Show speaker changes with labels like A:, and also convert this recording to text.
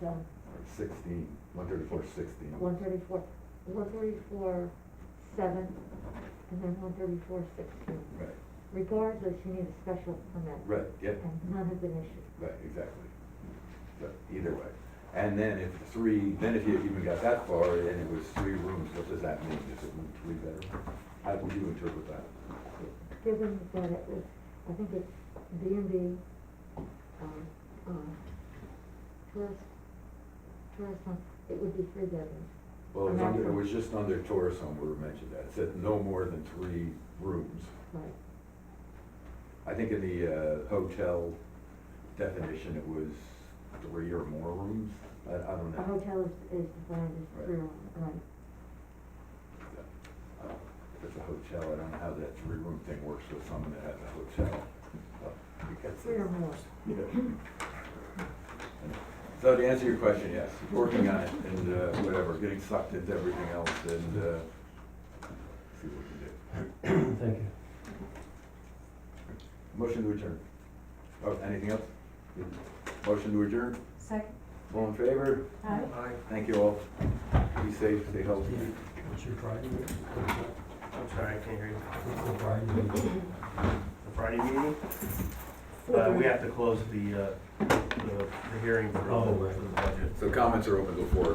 A: No,
B: or sixteen, one thirty-four sixteen.
A: one thirty-four, one thirty-four seven, and then one thirty-four sixteen.
B: Right,
A: Regardless, you need a special permit.
B: right, yep,
A: And none have been issued.
B: right, exactly. So either way. And then if three, then if you even got that far and it was three rooms, what does that mean? Is it three bedroom? How would you interpret that?
A: Given that it was, I think it's B and B, um, um, tourist, tourist home, it would be three bedrooms.
B: Well, it was
A: A
B: under, it
A: maximum.
B: was just under tourist home where it mentioned that. It said no more than three rooms.
A: Right.
B: I think in the uh, hotel definition, it was three or more rooms. I, I don't
A: A
B: know.
A: hotel is, is defined as three,
B: Right.
A: room, right.
B: Uh, If it's a hotel, I don't know how that three-room thing works with someone that has a hotel. uh, because
A: Three or more.
B: Yeah. So to answer your question, yes, working on it and uh, whatever, getting sucked into everything else and uh, see what we can do.
C: Thank you.
B: Motion to adjourn. Oh, anything else? Motion to adjourn?
D: Second.
B: All in favor?
D: Aye.
B: Thank you all. Be safe, stay healthy.
C: What's your Friday?
E: I'm sorry, I can't hear you.
C: What's the Friday?
E: The Friday meeting, uh, we have to close the, uh, the, the hearing for,
C: Oh, right.
E: for the budget.
B: So comments are open before.